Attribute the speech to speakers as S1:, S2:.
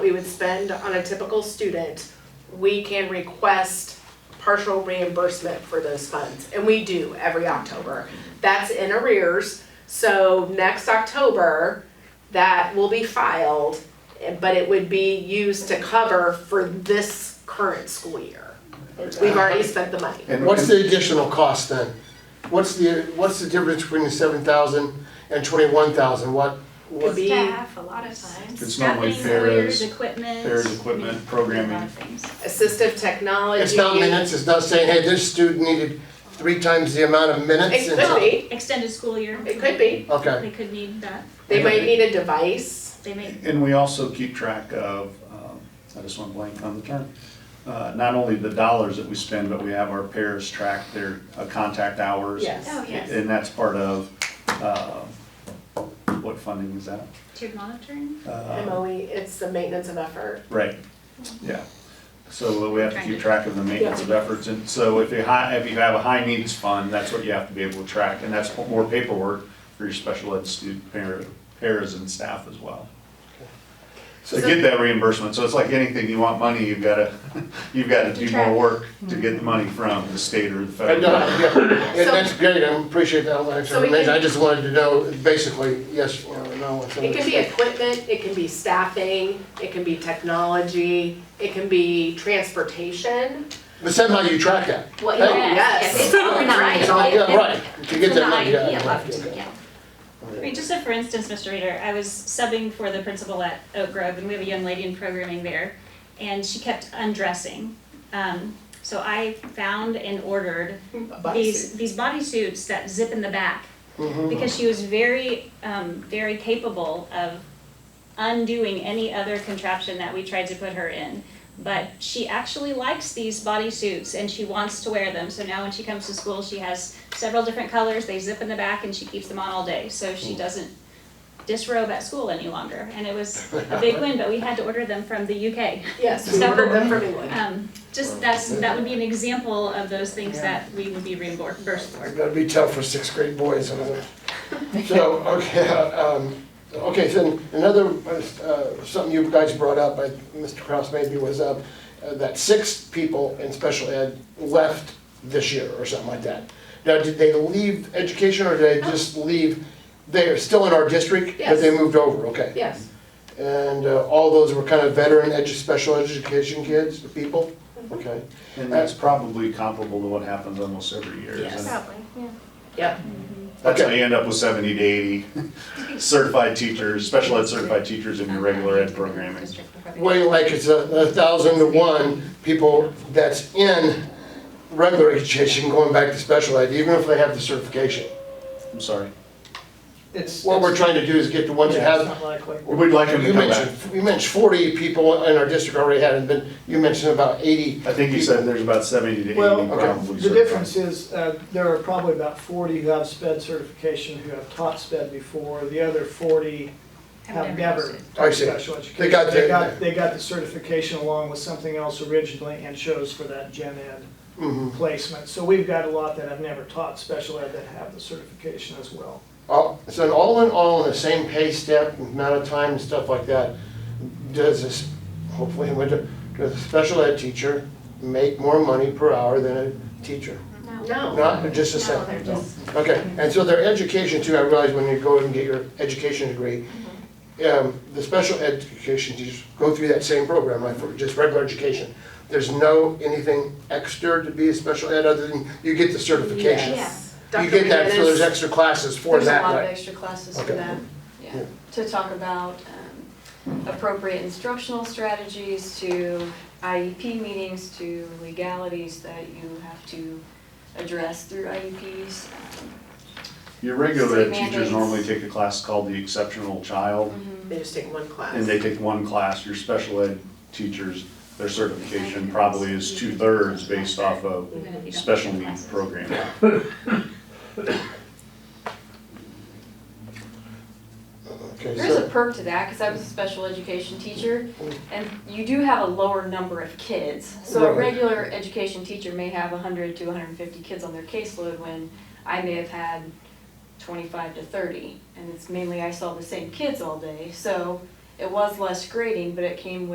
S1: we would spend on a typical student, we can request partial reimbursement for those funds, and we do every October. That's in arrears, so next October, that will be filed, but it would be used to cover for this current school year. We've already spent the money.
S2: And-
S3: What's
S2: and-
S3: the additional cost then? What's the, what's the difference between the seven thousand and twenty-one thousand? What,
S1: Could
S3: what,
S1: be-
S4: Staff, a lot of times.
S2: It's not like
S4: Staffing,
S2: Farrah's-
S4: lawyers, equipment.
S2: There's equipment,
S4: A lot
S2: programming.
S4: of things.
S1: Assistive technology.
S3: it's not minutes, it's not saying, hey, this student needed three times the amount of minutes?
S1: It
S3: and-
S1: could be,
S4: Extended school year.
S1: it could be.
S3: Okay,
S4: They could need that,
S1: They might need a device.
S4: they may,
S2: And we also keep track of, um, I just went blank on the term, uh, not only the dollars that we spend, but we have our pairs track their uh, contact hours.
S1: Yes.
S4: oh yes,
S2: And that's part of, uh, what funding is that?
S4: tiered monitoring,
S2: Uh,
S1: MOE, it's the maintenance of effort.
S2: Right, yeah. So we have to keep track of the maintenance of efforts, and so if you hi, if you have a high needs fund, that's what you have to be able to track, and that's more paperwork for your special ed student par- pairs and staff as well. So to get that reimbursement, so it's like anything, you want money, you've gotta, you've gotta do more work to get the money from the state or the
S3: I
S2: federal.
S3: know,
S2: government.
S3: yeah, yeah, that's great, I appreciate that, that's
S1: So we can-
S3: amazing, I just wanted to know, basically, yes or no. it's-
S1: It can be equipment, it can be staffing, it can be technology, it can be transportation. Oh,
S3: But somehow you track that.
S5: Well,
S3: Hey,
S1: yes.
S5: yes, yes, it's all
S3: It's all,
S5: nice.
S3: yeah, right, to get
S5: It's
S3: that
S5: an
S3: money, yeah.
S5: idea
S3: yeah,
S5: left,
S3: yeah.
S5: yeah.
S4: I mean, just if, for instance, Mr. Reader, I was subbing for the principal at Oak Grove, and we have a young lady in programming there, and she kept undressing. Um, so I found and ordered these, these bodysuits that zip in the back,
S3: Mm-hmm.
S4: because she was very, um, very capable of undoing any other contraption that we tried to put her in. But she actually likes these bodysuits and she wants to wear them, so now when she comes to school, she has several different colors, they zip in the back and she keeps them on all day, so she doesn't disrobe at school any longer, and it was a big win, but we had to order them from the UK.
S1: Yes, we ordered them from England.
S4: Um, just that's, that would be an example of those things that we would be reimbursed for.
S3: That'd be tough for sixth grade boys. uh, So, okay, um, okay, so another, uh, something you guys brought up, I- Mr. Kraus maybe, was uh, uh, that six people in special ed left this year or something like that. Now, did they leave education or did they just leave, they're still in our district, but they
S1: Yes.
S3: moved over, okay?
S1: Yes,
S3: And uh, all those were kind of veteran edu, special education kids, people? Okay.
S2: And that's probably comparable to what happens almost every year, isn't it?
S1: yep.
S2: That's how
S3: Okay.
S2: you end up with seventy to eighty certified teachers, special ed certified teachers in your regular ed programming.
S3: way like it's a, a thousand to one people that's in regular education going back to special ed, even if they have the certification.
S2: I'm sorry.
S6: It's.
S3: What we're trying to do is get the ones that have,
S2: We'd like them to
S3: you
S2: come back.
S3: mentioned, you mentioned forty people in our district already had, and then you mentioned about eighty.
S2: I think you said there's about seventy to eighty
S6: Well,
S2: probably
S3: okay.
S2: certified.
S6: The difference is, uh, there are probably about forty who have sped certification, who have taught sped before, the other forty have never.
S3: I see.
S6: taught special education.
S3: They got the-
S6: They got, they got the certification along with something else originally and chose for that gen ed
S3: Mhm.
S6: placement. So we've got a lot that have never taught special ed that have the certification as well.
S3: All- So all in all, the same pay step, amount of time and stuff like that, does this, hopefully, would- does a special ed teacher make more money per hour than a teacher?
S1: No,
S3: Not just a
S5: No,
S3: second.
S5: they're just,
S3: Okay, and so their education too, I realize when you go and get your education degree,
S7: Mm-hmm.
S3: um, the special education teachers go through that same program, like for just regular education. There's no anything extra to be a special ed other than you get the certification.
S1: yes. Dr.
S3: You get that, so there's
S1: McGinnis-
S3: extra classes for
S7: There's a
S3: that,
S7: lot of
S3: right?
S7: extra classes for
S3: Okay.
S7: that,
S3: Yeah.
S7: yeah, to talk about um, appropriate instructional strategies, to IEP meetings, to legalities that you have to address through E IEPs.
S2: Your regular ed
S7: State
S2: teachers
S7: mandates.
S2: normally take a class called the exceptional child,
S1: They just take one class.
S2: and they take one class. Your special ed teachers, their certification probably is two-thirds based off of
S4: even if you don't
S2: special
S4: have
S2: needs
S4: classes.
S2: programming.
S3: Okay,
S7: There's a
S3: so,
S7: perk to that, because I was a special education teacher, and you do have a lower number of kids. So a
S3: Right.
S7: regular education teacher may have hundred to hundred and fifty kids on their caseload, when I may have had twenty-five to thirty. And it's mainly I saw the same kids all day, so it was less grading, but it came with